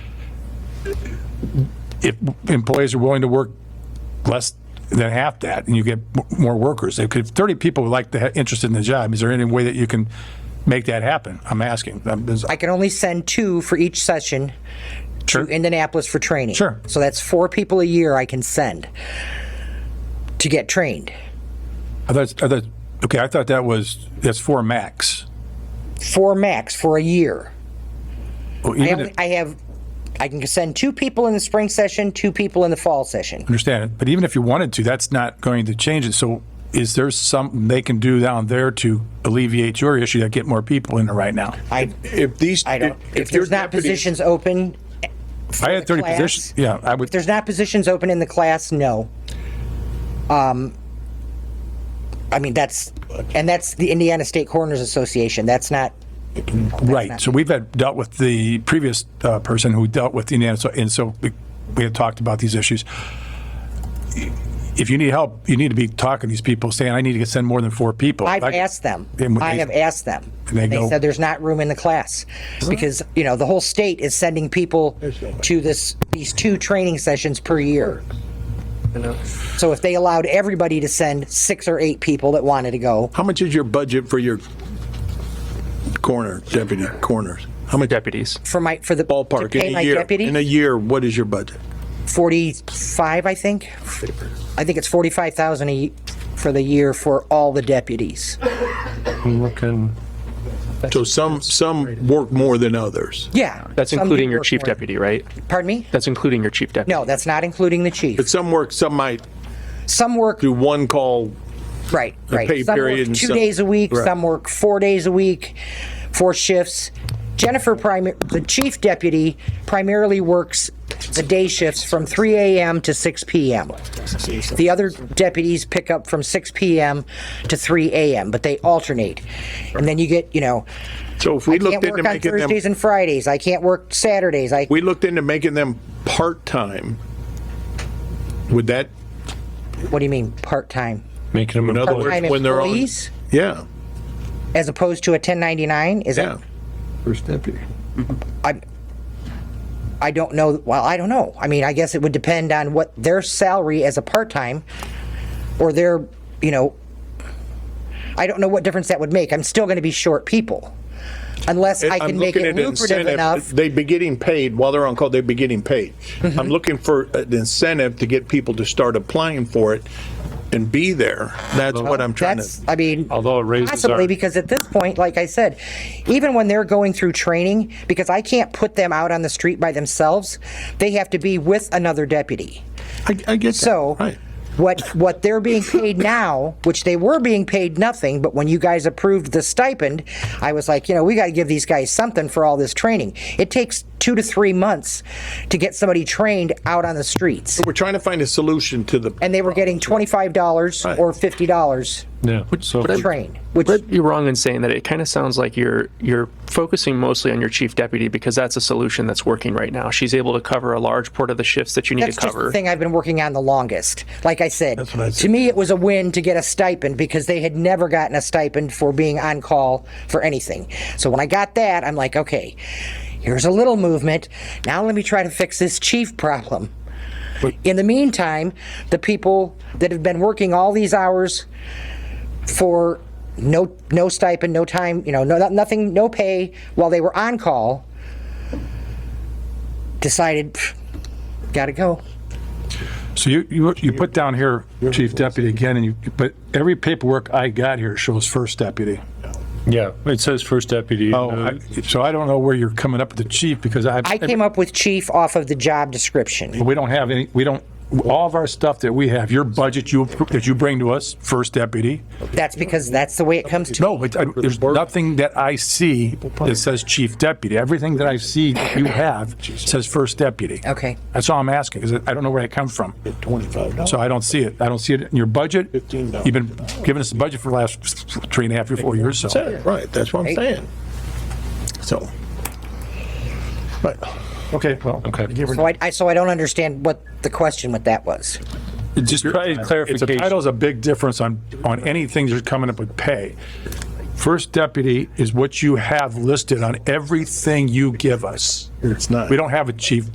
if employees are willing to work less than half that and you get m- more workers, if if 30 people would like to, ha- interested in the job, is there any way that you can make that happen? I'm asking. Um, is- I can only send two for each session Sure. to Indianapolis for training. Sure. So that's four people a year I can send to get trained. I thought, I thought, okay, I thought that was, that's four max. Four max for a year. Well, I even have, if- I have, I can send two people in the spring session, two people in the fall session. Understand it, but even if you wanted to, that's not going to change it. So is there something they can do down there to alleviate your issue that get more people in there right now? I, If these, I if don't, if if your there's not deputies, positions open, I had 30 class. positions, yeah, I would, there's not positions open in the class, no. Um, I mean, that's, and that's the Indiana State Coroners Association. That's not, right. So we've had, dealt with the previous uh, person who dealt with Indiana, so- and so we- we had talked about these issues. If you need help, you need to be talking to these people, saying, I need to get- send more than four people. I've Like- asked them. And when I they- have asked them. And they go- They said there's not room in the class because, you know, the whole state is sending people to this, these two training sessions per year. So if they allowed everybody to send six or eight people that wanted to go, how much is your budget for your coroner, deputy coroners? How much deputies. for my, for the. To ballpark pay in a my year? In a deputy, year, what is your budget? 45, I think. I think it's 45,000 a ye- for the year for all the deputies. I'm looking. So some, some work more than others. Yeah. That's Some including people your are chief for- deputy, right? Pardon me? That's including your chief deputy. No, that's not including the chief. But some work, some might Some work do one call. Right, right. pay Some period work and two some- days a week, Right. some work four days a week, four shifts. Jennifer, primi- the chief deputy, primarily works the day shifts from 3 AM to 6 PM. The other deputies pick up from 6 PM to 3 AM, but they alternate. And then you get, you know, So if we can't looked into work on making them, Thursdays and Fridays, I can't work Saturdays, I, we looked into making them part-time, would that, what do you mean, part-time? Making in them. other Part-time words, when they're on? employees Yeah, as opposed to a 1099? Is that yeah. I, I don't know, well, I don't know. I mean, I guess it would depend on what their salary as a part-time or their, you know, I don't know what difference that would make. I'm still going to be short people unless I I'm can make looking it at an lucrative incentive. enough. Mm-hmm. They'd be getting paid while they're on call, they'd be getting paid. I'm looking for an incentive to get people to start applying for it and be there. That's what I'm trying That's, to, I mean, Although it raises possibly our- because at this point, like I said, even when they're going through training, because I can't put them out on the street by themselves, they have to be with another deputy. I, I get that. So Right. what what they're being paid now, which they were being paid nothing, but when you guys approved the stipend, I was like, you know, we got to give these guys something for all this training. It takes 2 to 3 months to get somebody trained out on the streets. We're trying to find a solution to the, And they were getting $25 or $50 Yeah. So to train, which But you're wrong in saying that. It kind of sounds like you're you're focusing mostly on your chief deputy because that's a solution that's working right now. She's able to cover a large part of the shifts that you need That's to just the cover. thing I've been working on the longest. Like I said, to me, it was a win to get a stipend because they had never gotten a stipend for being on call for anything. So when I got that, I'm like, okay, here's a little movement. Now let me try to fix this chief problem. In the meantime, the people that have been working all these hours for no no stipend, no time, you know, no nothing, no pay while they were on call, decided, "Pff, gotta go. So you, you, you put down here chief deputy again, and you, but every paperwork I got here shows first deputy. yeah, it says first deputy. Oh, Uh, I- so I don't know where you're coming up with the chief because I, I came up with chief off of the job description. we don't have any, we don't, all of our stuff that we have, your budget you, that you bring to us, first deputy. That's because that's the way it comes to. No, but I- there's nothing that I see that says chief deputy. Everything that I see that you have says first deputy. Okay. That's all I'm asking, because I don't know where that comes from. So I don't see it. I don't see it in your budget. $15. You've been giving us the budget for the last three and a half, or four years, so. Yeah, right, that's what I'm saying. So. Right. Okay, well. Okay. So I, I- so I don't understand what the question with that was. Just try It's a, clarification. title's a big difference on, on anything that's coming up with pay. First deputy is what you have listed on everything you give us. It's not. We don't have a chief